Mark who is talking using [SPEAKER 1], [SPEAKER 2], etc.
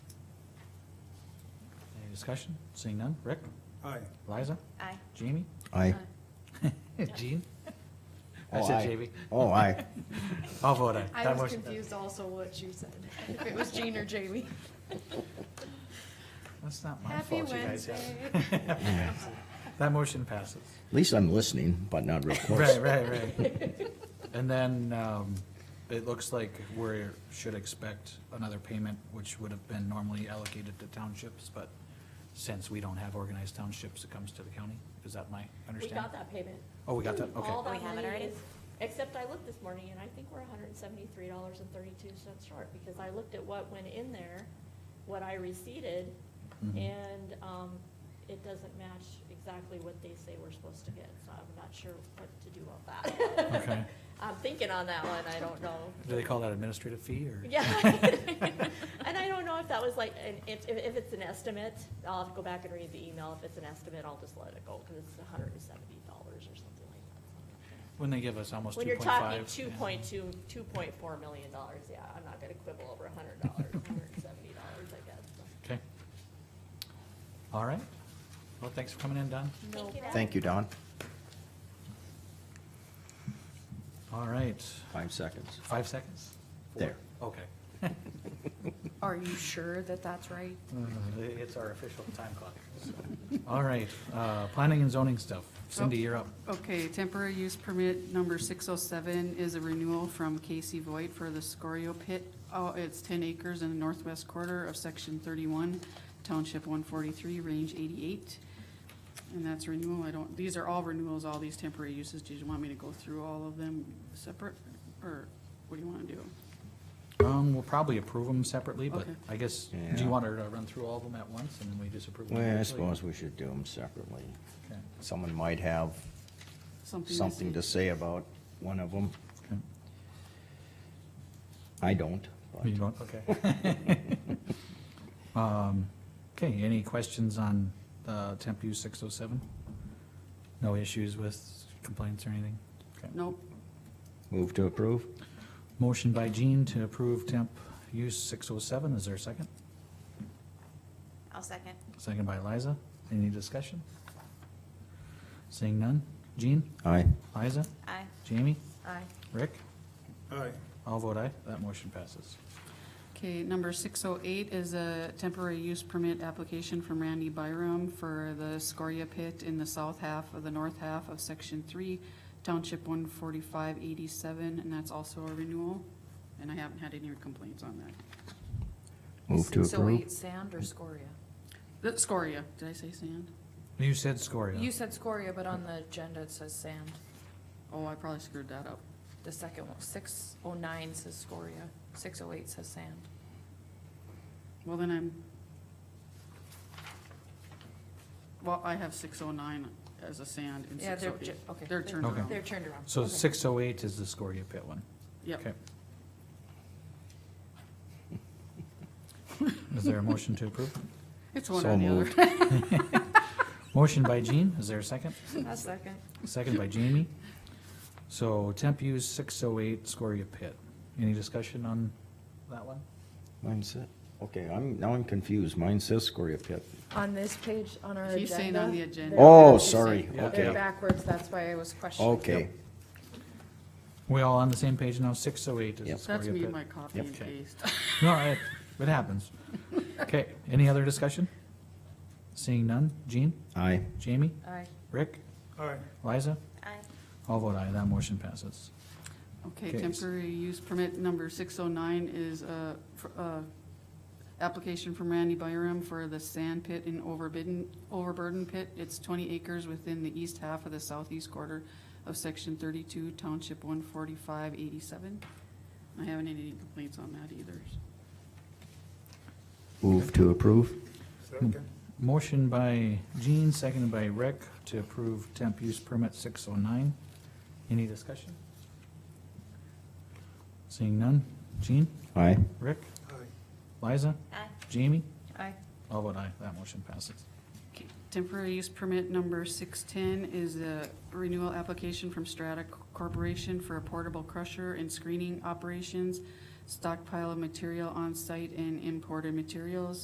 [SPEAKER 1] Any discussion? Seeing none. Rick?
[SPEAKER 2] Aye.
[SPEAKER 1] Liza?
[SPEAKER 3] Aye.
[SPEAKER 1] Jamie?
[SPEAKER 4] Aye.
[SPEAKER 1] Jean? I
[SPEAKER 4] Oh,
[SPEAKER 1] said
[SPEAKER 4] aye.
[SPEAKER 1] Jamie.
[SPEAKER 4] Oh, aye.
[SPEAKER 1] I'll vote aye.
[SPEAKER 3] I
[SPEAKER 1] That
[SPEAKER 3] was
[SPEAKER 1] motion-
[SPEAKER 3] confused also what you said, if it was Jean or Jamie.
[SPEAKER 1] That's not my
[SPEAKER 3] Happy
[SPEAKER 1] fault, you guys.
[SPEAKER 3] Wednesday.
[SPEAKER 1] have- That motion passes.
[SPEAKER 4] At least I'm listening, but not real close.
[SPEAKER 1] Right, right, right. And then, um, it looks like we should expect another payment, which would have been normally allocated to townships, but since we don't have organized townships, it comes to the county. Is that my
[SPEAKER 5] We
[SPEAKER 1] understanding?
[SPEAKER 5] got that payment.
[SPEAKER 1] Oh, we got that? Okay.
[SPEAKER 5] All that
[SPEAKER 3] We have it
[SPEAKER 5] money
[SPEAKER 3] already?
[SPEAKER 5] is- Except I looked this morning and I think we're hundred and seventy-three dollars and thirty-two cents short because I looked at what went in there, what I receded,
[SPEAKER 1] Mhm.
[SPEAKER 5] and, um, it doesn't match exactly what they say we're supposed to get, so I'm not sure what to do about that.
[SPEAKER 1] Okay.
[SPEAKER 5] I'm thinking on that one, I don't know.
[SPEAKER 1] Do they call that administrative fee or?
[SPEAKER 5] Yeah. And I don't know if that was like, an if, if if it's an estimate, I'll have to go back and read the email. If it's an estimate, I'll just let it go because it's hundred and seventy dollars or something like that.
[SPEAKER 1] When they give us almost
[SPEAKER 5] When
[SPEAKER 1] two
[SPEAKER 5] you're
[SPEAKER 1] point five.
[SPEAKER 5] talking two point two, two point four million dollars, yeah, I'm not gonna quibble over a hundred dollars, hundred and seventy dollars, I guess.
[SPEAKER 1] Okay. All right. Well, thanks for coming in, Don.
[SPEAKER 5] No,
[SPEAKER 4] Thank you, Don.
[SPEAKER 1] All right.
[SPEAKER 4] Five seconds.
[SPEAKER 1] Five seconds?
[SPEAKER 4] There.
[SPEAKER 1] Okay.
[SPEAKER 3] Are you sure that that's right?
[SPEAKER 1] It's Uh, our official time clock. All right, uh, planning and zoning stuff. Cindy, you're up.
[SPEAKER 6] Okay, temporary use permit number six oh seven is a renewal from Casey Voigt for the Scorio Pit. Oh, it's ten acres in the northwest quarter of section thirty-one, township one forty-three, range eighty-eight. And that's renewal, I don't, these are all renewals, all these temporary uses. Did you want me to go through all of them separate, or what do you wanna do?
[SPEAKER 1] Um, we'll probably approve them separately, but
[SPEAKER 6] Okay.
[SPEAKER 1] I guess, do
[SPEAKER 4] Yeah.
[SPEAKER 1] you want her to run through all of them at once and then we disapprove? them
[SPEAKER 4] Well, I
[SPEAKER 1] individually?
[SPEAKER 4] suppose we should do them separately.
[SPEAKER 1] Okay.
[SPEAKER 4] Someone might have
[SPEAKER 6] Something to
[SPEAKER 4] something
[SPEAKER 6] say?
[SPEAKER 4] to say about one of them.
[SPEAKER 1] Okay.
[SPEAKER 4] I don't, but
[SPEAKER 1] You don't? Okay. Um, Okay, any questions on uh, temp use 607? No issues with complaints or anything? Okay.
[SPEAKER 6] Nope,
[SPEAKER 4] move to approve.
[SPEAKER 1] Motion by Jean to approve temp use 607. Is there a second?
[SPEAKER 3] I'll second.
[SPEAKER 1] Second by Liza. Any discussion? Seeing none. Jean,
[SPEAKER 4] Aye.
[SPEAKER 1] Liza,
[SPEAKER 3] Aye.
[SPEAKER 1] Jamie,
[SPEAKER 3] Aye.
[SPEAKER 1] Rick,
[SPEAKER 2] Aye.
[SPEAKER 1] all vote aye. That motion passes.
[SPEAKER 6] Okay, number six oh eight is a temporary use permit application from Randy Byram for the Scoria pit in the south half of the north half of section three, township one forty-five eighty-seven, and that's also a renewal, and I haven't had any complaints on that.
[SPEAKER 4] Move to
[SPEAKER 7] So
[SPEAKER 4] approve.
[SPEAKER 7] wait, sand or scoria?
[SPEAKER 6] The Scoria, did I say sand?
[SPEAKER 1] You said Scoria.
[SPEAKER 7] You said scoria, but on the agenda it says sand.
[SPEAKER 6] Oh, I probably screwed that up.
[SPEAKER 7] The second one, six oh nine says scoria, six oh eight says sand.
[SPEAKER 6] Well, then I'm. Well, I have six oh nine as a sand and
[SPEAKER 7] Yeah,
[SPEAKER 6] six
[SPEAKER 7] they're
[SPEAKER 6] oh eight.
[SPEAKER 7] ju- okay.
[SPEAKER 6] They're turned
[SPEAKER 1] Okay.
[SPEAKER 6] around,
[SPEAKER 7] They're turned around.
[SPEAKER 1] So
[SPEAKER 7] Okay.
[SPEAKER 1] 608 is the Scoria pit one.
[SPEAKER 6] yep.
[SPEAKER 1] Okay. Is there a motion to approve?
[SPEAKER 6] It's one
[SPEAKER 4] So
[SPEAKER 6] or the other.
[SPEAKER 4] moved.
[SPEAKER 1] Motion by Jean, is there a second?
[SPEAKER 7] A second.
[SPEAKER 1] Second by Jamie. So temp use six oh eight Scoria Pit. Any discussion on that one?
[SPEAKER 4] Mine said, okay, I'm, now I'm confused. Mine says Scoria Pit.
[SPEAKER 8] On this page, on our agenda.
[SPEAKER 6] He's saying on the agenda.
[SPEAKER 4] Oh,
[SPEAKER 8] They're-
[SPEAKER 4] sorry,
[SPEAKER 1] Yeah.
[SPEAKER 8] They're
[SPEAKER 4] okay,
[SPEAKER 8] backwards, that's why I was questioning.
[SPEAKER 4] okay.
[SPEAKER 1] We all on the same page now, six oh eight is the
[SPEAKER 4] Yep.
[SPEAKER 1] Scoria
[SPEAKER 6] That's
[SPEAKER 1] Pit.
[SPEAKER 6] me, my copy
[SPEAKER 4] Yep.
[SPEAKER 6] and
[SPEAKER 1] Okay.
[SPEAKER 6] paste.
[SPEAKER 1] No, it, it happens. Okay, any other discussion? Seeing none, Jean,
[SPEAKER 4] Aye.
[SPEAKER 1] Jamie,
[SPEAKER 7] Aye.
[SPEAKER 1] Rick,
[SPEAKER 2] Aye.
[SPEAKER 1] Liza,
[SPEAKER 3] Aye.
[SPEAKER 1] all vote aye, that motion passes.
[SPEAKER 6] Okay,
[SPEAKER 1] Okay.
[SPEAKER 6] temporary use permit number six oh nine is a, uh application from Randy Byram for the sand pit in overbidden, overburden pit. It's twenty acres within the east half of the southeast quarter of section thirty-two, township one forty-five eighty-seven. I haven't had any complaints on that either.
[SPEAKER 4] Move to approve.
[SPEAKER 2] Second.
[SPEAKER 1] Motion by Jean, seconded by Rick to approve temp use permit six oh nine. Any discussion? Seeing none, Jean,
[SPEAKER 4] Aye.
[SPEAKER 1] Rick,
[SPEAKER 2] Aye.
[SPEAKER 1] Liza,
[SPEAKER 3] Aye.
[SPEAKER 1] Jamie,
[SPEAKER 7] Aye.
[SPEAKER 1] all vote aye, that motion passes.
[SPEAKER 6] Okay, Temporary use permit number six-ten is a renewal application from Strata Corporation for a portable crusher and screening operations, stockpile of material on-site and imported materials,